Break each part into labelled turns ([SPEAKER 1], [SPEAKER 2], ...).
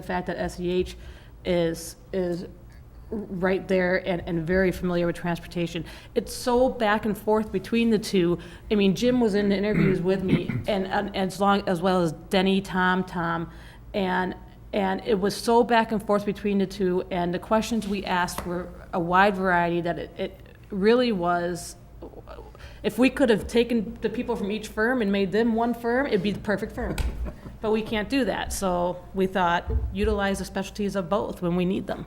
[SPEAKER 1] the fact that SEH is, is right there and, and very familiar with transportation. It's so back and forth between the two. I mean, Jim was in interviews with me and, and as long, as well as Denny, Tom, Tom. And, and it was so back and forth between the two. And the questions we asked were a wide variety that it, it really was, if we could have taken the people from each firm and made them one firm, it'd be the perfect firm. But we can't do that, so we thought utilize the specialties of both when we need them.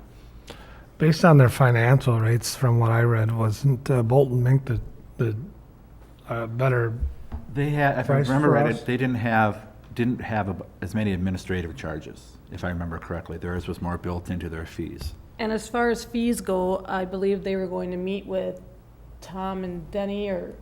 [SPEAKER 2] Based on their financial rates, from what I read, wasn't uh, Bolton Mink the, the uh, better?
[SPEAKER 3] They had, if I
[SPEAKER 2] Price
[SPEAKER 3] remember
[SPEAKER 2] for
[SPEAKER 3] right,
[SPEAKER 2] us?
[SPEAKER 3] it- they didn't have, didn't have ab- as many administrative charges, if I remember correctly. Theirs was more built into their fees.
[SPEAKER 1] And as far as fees go, I believe they were going to meet with Tom and Denny, or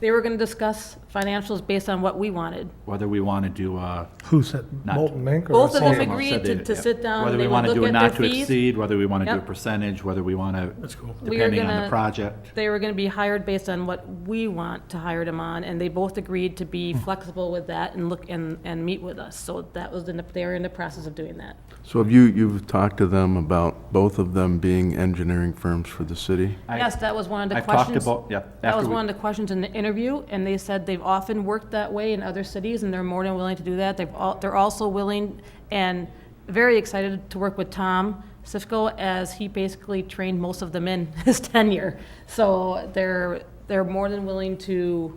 [SPEAKER 1] they were gonna discuss financials based on what we wanted.
[SPEAKER 3] Whether we want to do a.
[SPEAKER 2] Who said
[SPEAKER 3] Not-
[SPEAKER 2] Bolton Mink? or
[SPEAKER 1] Both of them
[SPEAKER 2] Salem?
[SPEAKER 1] agreed
[SPEAKER 3] said
[SPEAKER 1] to-
[SPEAKER 3] they-
[SPEAKER 1] to
[SPEAKER 3] yeah.
[SPEAKER 1] sit down,
[SPEAKER 3] Whether
[SPEAKER 1] they
[SPEAKER 3] we
[SPEAKER 1] would
[SPEAKER 3] want to
[SPEAKER 1] look
[SPEAKER 3] do a
[SPEAKER 1] at their
[SPEAKER 3] not to
[SPEAKER 1] fees.
[SPEAKER 3] exceed, whether we want to do a
[SPEAKER 1] Yep.
[SPEAKER 3] percentage, whether we want to,
[SPEAKER 4] That's cool.
[SPEAKER 1] We are
[SPEAKER 3] depending on the
[SPEAKER 1] gonna-
[SPEAKER 3] project.
[SPEAKER 1] They were gonna be hired based on what we want to hire them on, and they both agreed to be flexible with that and look, and, and meet with us. So that was, in the- they were in the process of doing that.
[SPEAKER 5] So have you, you've talked to them about both of them being engineering firms for the city?
[SPEAKER 3] I-
[SPEAKER 1] Yes, that was one of the
[SPEAKER 3] I've talked
[SPEAKER 1] questions.
[SPEAKER 3] about- yeah,
[SPEAKER 1] That
[SPEAKER 3] after
[SPEAKER 1] was
[SPEAKER 3] we-
[SPEAKER 1] one of the questions in the interview, and they said they've often worked that way in other cities, and they're more than willing to do that. They've all, they're also willing and very excited to work with Tom Sifko, as he basically trained most of them in his tenure. So they're, they're more than willing to,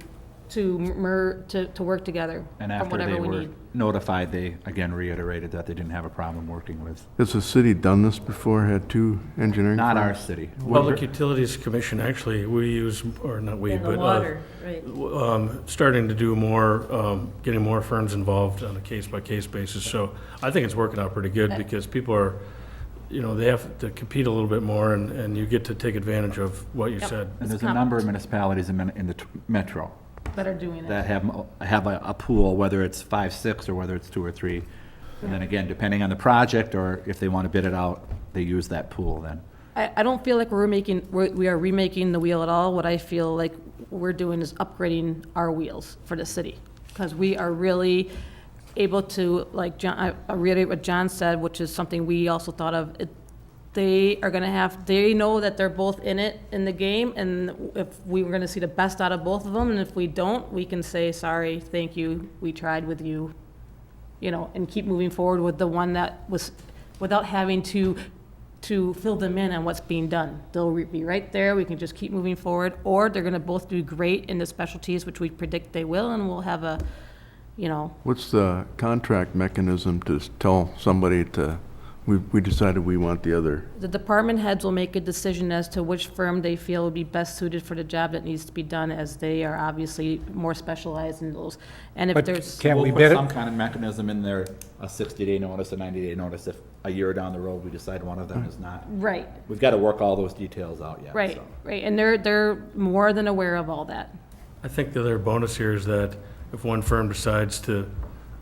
[SPEAKER 1] to mer, to, to work together
[SPEAKER 3] And
[SPEAKER 1] on
[SPEAKER 3] after they
[SPEAKER 1] whatever we
[SPEAKER 3] were
[SPEAKER 1] need.
[SPEAKER 3] notified, they again reiterated that they didn't have a problem working with,
[SPEAKER 5] Has the city done this before, had two engineering?
[SPEAKER 3] not our
[SPEAKER 5] firms?
[SPEAKER 3] city.
[SPEAKER 4] Public Utilities Commission, actually, we use, or not we,
[SPEAKER 6] And the
[SPEAKER 4] but,
[SPEAKER 6] water,
[SPEAKER 4] uh,
[SPEAKER 6] right.
[SPEAKER 4] w- um, starting to do more, um, getting more firms involved on a case-by-case basis. So I think it's working out pretty good because people are, you know, they have to compete a little bit more and, and you get to take advantage of what you
[SPEAKER 1] Yep.
[SPEAKER 4] said.
[SPEAKER 3] And
[SPEAKER 1] It's
[SPEAKER 3] there's a
[SPEAKER 1] comp-
[SPEAKER 3] number of municipalities in, Min- in the t- metro
[SPEAKER 1] That are doing
[SPEAKER 3] that
[SPEAKER 1] it.
[SPEAKER 3] have, mo- have a, a pool, whether it's five, six, or whether it's two or three. And then again, depending on the project, or if they want to bid it out, they use that pool then.
[SPEAKER 1] I, I don't feel like we're making, we're- we are remaking the wheel at all. What I feel like we're doing is upgrading our wheels for the city. Because we are really able to, like, John, I- I reiterate what John said, which is something we also thought of. It- They are gonna have, they know that they're both in it, in the game, and if we were gonna see the best out of both of them, and if we don't, we can say, sorry, thank you, we tried with you, you know, and keep moving forward with the one that was, without having to, to fill them in on what's being done. They'll re- be right there, we can just keep moving forward, or they're gonna both do great in the specialties, which we predict they will, and we'll have a, you know,
[SPEAKER 5] What's the contract mechanism to s- tell somebody to, we, we decided we want the other?
[SPEAKER 1] the department heads will make a decision as to which firm they feel would be best suited for the job that needs to be done, as they are obviously more specialized in those. And if
[SPEAKER 2] But
[SPEAKER 1] there's,
[SPEAKER 2] Can't we
[SPEAKER 3] We'll
[SPEAKER 2] bid
[SPEAKER 3] put
[SPEAKER 2] it?
[SPEAKER 3] some kind of mechanism in there, a 60-day notice, a 90-day notice, if a year down the road, we decide one of them is not.
[SPEAKER 1] right,
[SPEAKER 3] We've got to work all those details out yet.
[SPEAKER 1] right,
[SPEAKER 3] so.
[SPEAKER 1] right, and they're, they're more than aware of all that.
[SPEAKER 4] I think the other bonus here is that if one firm decides to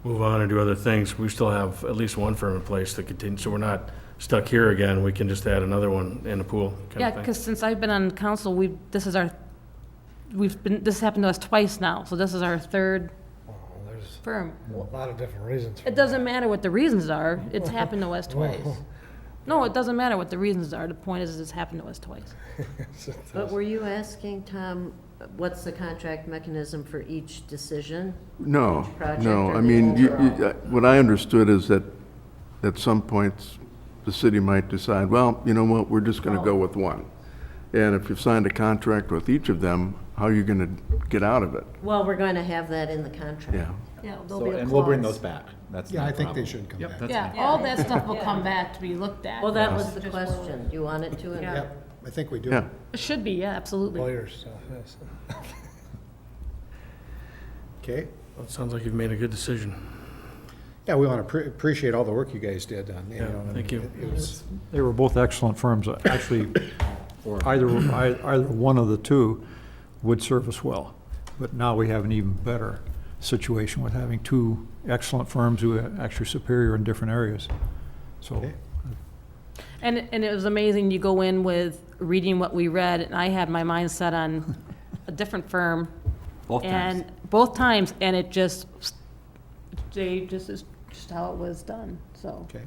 [SPEAKER 4] move on and do other things, we still have at least one firm in place that continues. So we're not stuck here again. We can just add another one in the pool kind
[SPEAKER 1] Yeah,
[SPEAKER 4] of thing.
[SPEAKER 1] because since I've been on council, we've, this is our, we've been, this happened to us twice now, so this is our third
[SPEAKER 2] There's
[SPEAKER 1] firm.
[SPEAKER 2] a lot of different reasons. for
[SPEAKER 1] It doesn't matter what the reasons are, it's happened to us twice. No, it doesn't matter what the reasons are, the point is, it's happened to us twice.
[SPEAKER 6] But were you asking, Tom, what's the contract mechanism for each decision?
[SPEAKER 5] No,
[SPEAKER 6] project
[SPEAKER 5] no,
[SPEAKER 6] or
[SPEAKER 5] I
[SPEAKER 6] the
[SPEAKER 5] mean, you- you-
[SPEAKER 6] overall?
[SPEAKER 5] uh, what I understood is that at some points, the city might decide, well, you know what, we're just going to go with one. And if you've signed a contract with each of them, how are you going to get out of it?
[SPEAKER 6] Well, we're going to have that in the contract.
[SPEAKER 5] Yeah.
[SPEAKER 6] Yeah,
[SPEAKER 3] So, and we'll bring those back. That's
[SPEAKER 7] Yeah,
[SPEAKER 3] not
[SPEAKER 7] I
[SPEAKER 3] a
[SPEAKER 7] think they
[SPEAKER 3] problem.
[SPEAKER 7] should come
[SPEAKER 3] Yep,
[SPEAKER 7] back.
[SPEAKER 3] that's
[SPEAKER 1] Yeah,
[SPEAKER 3] fine.
[SPEAKER 1] all that stuff will come back to be looked at.
[SPEAKER 6] Well, that was the question. You want it to?
[SPEAKER 1] Yeah.
[SPEAKER 7] Yep, I think we do.
[SPEAKER 5] Yeah.
[SPEAKER 1] It Should be, yeah, absolutely.
[SPEAKER 2] Lawyers, so, yes.
[SPEAKER 7] Okay.
[SPEAKER 4] Well, it sounds like you've made a good decision.
[SPEAKER 7] Yeah, we want to appreciate all the work you guys did on, you
[SPEAKER 4] Yeah,
[SPEAKER 7] know. and
[SPEAKER 4] thank you.
[SPEAKER 7] it- it was-
[SPEAKER 8] They were both excellent firms. Actually, either, ei- either one of the two would serve us well. But now we have an even better situation with having two excellent firms who are actually superior in different areas. So
[SPEAKER 7] Okay.
[SPEAKER 1] And, and it was amazing, you go in with reading what we read, and I had my mind set on a different firm,
[SPEAKER 3] Both times.
[SPEAKER 1] And both times, and it just, they just, is-
[SPEAKER 9] just how it was done, so.
[SPEAKER 1] Okay.